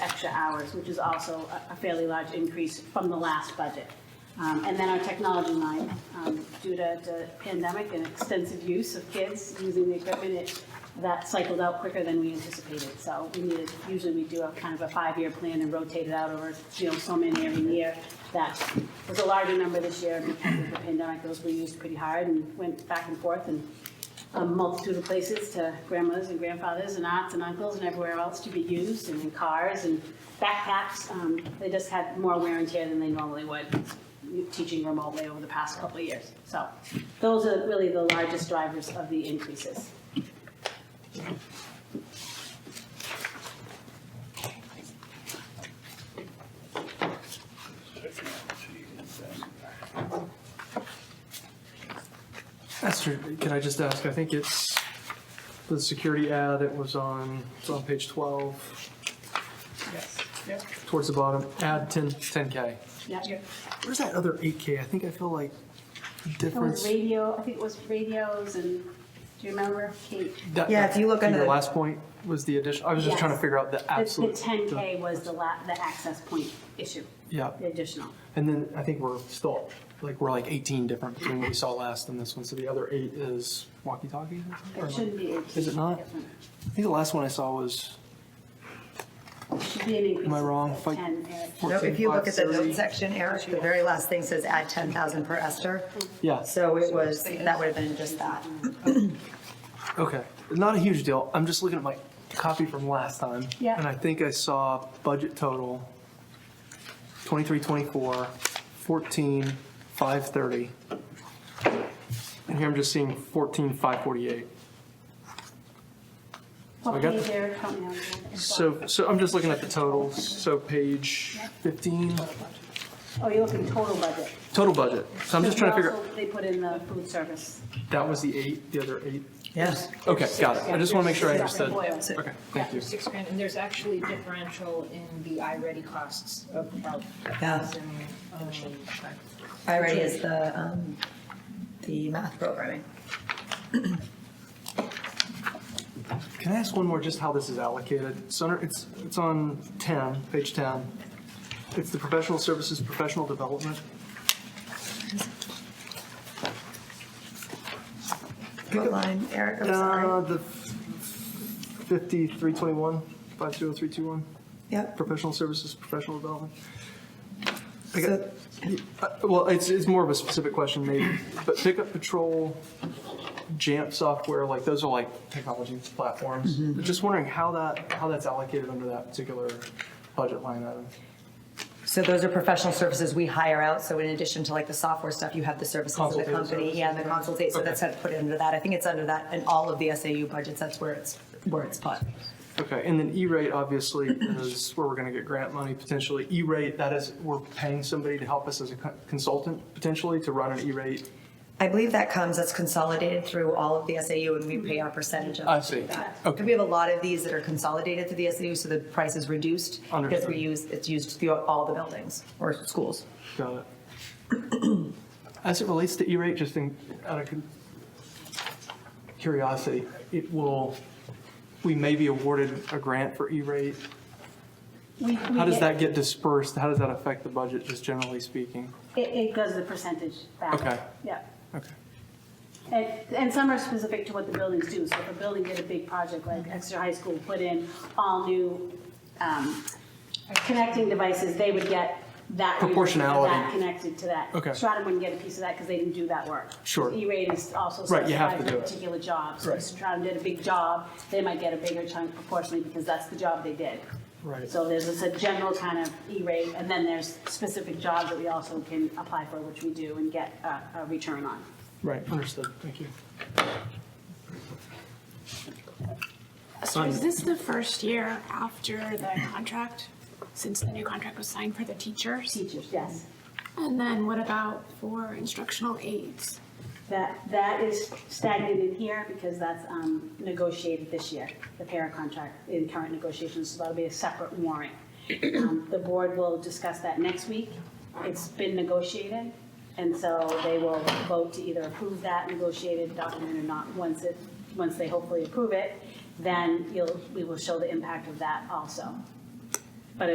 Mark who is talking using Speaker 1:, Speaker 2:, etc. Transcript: Speaker 1: extra hours, which is also a- a fairly large increase from the last budget. Um, And then our technology line, um, due to the pandemic and extensive use of kids using the equipment, it- that cycled out quicker than we anticipated. So we needed, usually we do a kind of a five-year plan and rotate it out over, you know, so many every year. That was a larger number this year because of the pandemic. Those were used pretty hard and went back and forth and a multitude of places to grandmothers and grandfathers and aunts and uncles and everywhere else to be used and in cars and backpacks. Um, They just had more wear and tear than they normally would, teaching remotely over the past couple of years. So those are really the largest drivers of the increases.
Speaker 2: Esther, can I just ask, I think it's the security ad, it was on, it's on page twelve,
Speaker 3: Yes.
Speaker 2: towards the bottom, add 10 K.
Speaker 1: Yeah.
Speaker 3: Yeah.
Speaker 2: Where's that other eight K? I think I feel like
Speaker 1: It was
Speaker 2: difference.
Speaker 1: radio, I think it was radios and, do you remember, Kate?
Speaker 2: That-
Speaker 3: Yeah, if you look under
Speaker 2: Your
Speaker 3: the-
Speaker 2: last point was the addition, I was just
Speaker 1: Yes.
Speaker 2: trying to figure out the
Speaker 1: The-
Speaker 2: absolute.
Speaker 1: The ten K was the la, the access point issue,
Speaker 2: Yeah,
Speaker 1: the additional.
Speaker 2: and then I think we're still, like, we're like eighteen different between what we saw last and this one, so the other eight is walkie-talkie? or
Speaker 1: It
Speaker 2: something?
Speaker 1: shouldn't be.
Speaker 2: Is it not?
Speaker 1: different.
Speaker 2: I think the last one I saw was
Speaker 1: Should be an increase.
Speaker 2: Am I wrong?
Speaker 1: of
Speaker 2: Like-
Speaker 1: Ten, Eric.
Speaker 3: No, if you look at the
Speaker 2: 14,530.
Speaker 3: notes section, Eric, the very last thing says add ten thousand per Esther.
Speaker 2: Yeah,
Speaker 3: So it was, that would have been just that.
Speaker 2: okay. Not a huge deal. I'm just looking at my copy from last time.
Speaker 1: Yeah.
Speaker 2: And I think I saw budget total 23, 24, 14, 530. And here I'm just seeing 14, 548.
Speaker 1: What
Speaker 2: I got
Speaker 1: page,
Speaker 2: the-
Speaker 1: Eric, help me out again.
Speaker 2: So, so I'm just looking at the totals. So page 15,
Speaker 1: Oh, you're looking total budget.
Speaker 2: total budget. So I'm just trying to figure, out
Speaker 1: Also, They put in the food service.
Speaker 2: that was the eight, the other eight?
Speaker 3: Yes.
Speaker 2: Okay, got it. I just want to make sure I
Speaker 1: There's
Speaker 2: understood.
Speaker 1: separate oil.
Speaker 2: Okay,
Speaker 4: Yeah,
Speaker 2: thank you.
Speaker 4: Six grand, and there's actually differential in the iReady costs of about a thousand. um,
Speaker 3: I already is the, um, the math programming.
Speaker 2: Can I ask one more, just how this is allocated? It's under, it's, it's on 10, page 10. It's the professional services, professional development.
Speaker 3: What line, Eric, I'm
Speaker 2: Uh,
Speaker 3: sorry.
Speaker 2: the 5321, 50321,
Speaker 3: Yep.
Speaker 2: professional services, professional development. I got-
Speaker 3: So-
Speaker 2: uh, Well, it's, it's more of a specific question maybe, but pickup patrol, Jamp software, like those are like technology platforms.
Speaker 3: Mm-hmm.
Speaker 2: Just wondering how that, how that's allocated under that particular budget line item.
Speaker 3: So those are professional services we hire out, so in addition to like the software stuff, you have the services of the
Speaker 2: Consultative
Speaker 3: company, yeah, and the consultate, so
Speaker 2: Okay.
Speaker 3: that's how to put it under that. I think it's under that, and all of the SAU budgets, that's where it's, where it's put.
Speaker 2: Okay, and then E-rate obviously is where we're gonna get grant money potentially. E-rate, that is, we're paying somebody to help us as a co- consultant potentially to run an E-rate.
Speaker 3: I believe that comes, that's consolidated through all of the SAU and we pay our percentage of.
Speaker 2: I see.
Speaker 3: that.
Speaker 2: Okay.
Speaker 3: We have a lot of these that are consolidated through the SAU, so the price is reduced. Because
Speaker 2: Understood.
Speaker 3: we use, it's used through all the buildings or schools.
Speaker 2: Got it. As it relates to E-rate, just in, out of cu- curiosity, it will, we may be awarded a grant for E-rate.
Speaker 1: We- we
Speaker 2: How does that get dispersed? How does that affect the budget, just generally speaking?
Speaker 1: It, it goes the percentage back.
Speaker 2: Okay.
Speaker 1: Yeah.
Speaker 2: Okay.
Speaker 1: And, and some are specific to what the buildings do. So if a building did a big project like Exeter High School put in all new um, connecting devices, they would get that. rebate for
Speaker 2: Proportionality.
Speaker 1: That connected to that.
Speaker 2: Okay.
Speaker 1: Stratum wouldn't get a piece of that because they didn't do that work.
Speaker 2: Sure.
Speaker 1: E-rate is also
Speaker 2: Right, you have
Speaker 1: specified
Speaker 2: to
Speaker 1: for
Speaker 2: do it.
Speaker 1: particular jobs. So if
Speaker 2: Right.
Speaker 1: Stratum did a big job, they might get a bigger chunk proportionally because that's the job they did.
Speaker 2: Right.
Speaker 1: So there's this a general kind of E-rate, and then there's specific jobs that we also can apply for, which we do and get a, a return on.
Speaker 2: Right, understood, thank you.
Speaker 5: So is this the first year after the contract, since the new contract was signed for the teachers?
Speaker 1: Teachers, yes.
Speaker 5: And then what about for instructional aides?
Speaker 1: That, that is stagnant in here because that's um, negotiated this year, the para contract in current negotiations, so that'll be a separate warrant. Um, The board will discuss that next week. It's been negotiated, and so they will vote to either approve that negotiated document or not. Once it, once they hopefully approve it, then you'll, we will show the impact of that also.